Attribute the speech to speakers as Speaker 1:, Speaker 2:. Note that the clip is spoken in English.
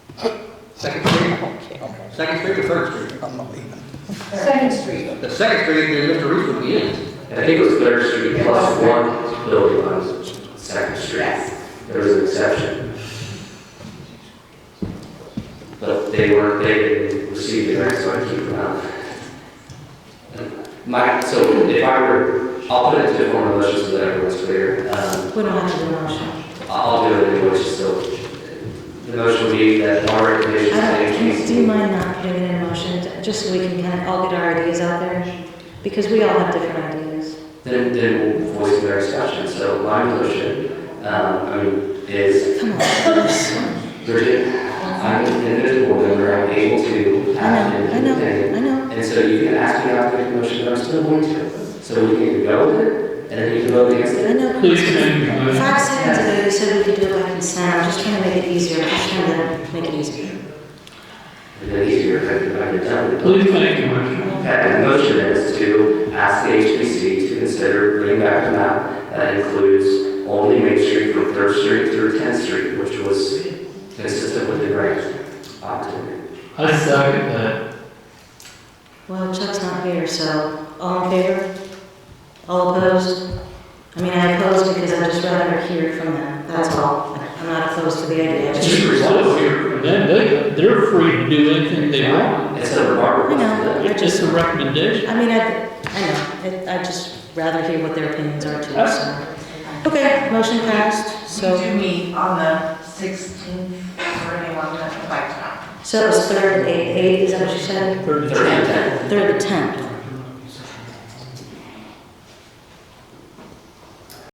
Speaker 1: Second Street? Second Street or Third Street?
Speaker 2: I'm not leaving.
Speaker 3: Second Street.
Speaker 1: The Second Street, then Mr. Reese would be in.
Speaker 4: I think it was Third Street plus one building on Second Street.
Speaker 3: Yes.
Speaker 4: There was an exception. But they weren't, they didn't receive the grant, so I keep them out. My, so if I were, I'll put it into a form of motion so that everyone's clear. Um,
Speaker 5: We don't have to do a motion.
Speaker 4: I'll do it anyway, so the motion would be that our recommendation
Speaker 5: I
Speaker 4: is
Speaker 5: don't, Uh, can- do you
Speaker 4: increase.
Speaker 5: mind not putting it in a motion, to- just so we can kind of all get our ideas out there? Because we all have different ideas.
Speaker 4: Then, then we'll voice their discussion, so my motion, um, I mean, is,
Speaker 5: Come on.
Speaker 4: Bridget, I'm an individual member, I'm able to
Speaker 5: I
Speaker 4: act
Speaker 5: know, I know,
Speaker 4: independently.
Speaker 5: I know.
Speaker 4: And so you can ask me after the motion, but I'm still going to. So we can go with it, and then you can vote against it.
Speaker 5: I know.
Speaker 6: Please, can you-
Speaker 5: Five seconds ago, you said we could do it by consent, I'm just trying to make it easier, I'm just trying to make it easier.
Speaker 4: And then easier if I can, if I can tell you.
Speaker 6: Please make a motion.
Speaker 4: Okay, the motion is to ask the HPC to consider bringing back a map that includes only Main Street from Third Street through 10th Street, which was consistent with the grant opportunity.
Speaker 6: I second that.
Speaker 5: Well, Chuck's not here, so all in favor? All opposed? I mean, I oppose because I'd just rather hear from them, that's all. I'm not opposed to the idea, I just-
Speaker 6: Just results here. They, they, they're free to do anything they want.
Speaker 4: It's a remarkable.
Speaker 5: I know.
Speaker 6: It's just a recommendation.
Speaker 5: I mean, I, I know, It- I'd just rather hear what their opinions are too, so. Okay, motion passed,
Speaker 3: So
Speaker 5: so,
Speaker 3: do meet on the 16th for anyone that might come.
Speaker 5: so it was third, eight, eight, is that what you said?
Speaker 6: Third,
Speaker 4: Third and 10th.
Speaker 5: Third, the tenth,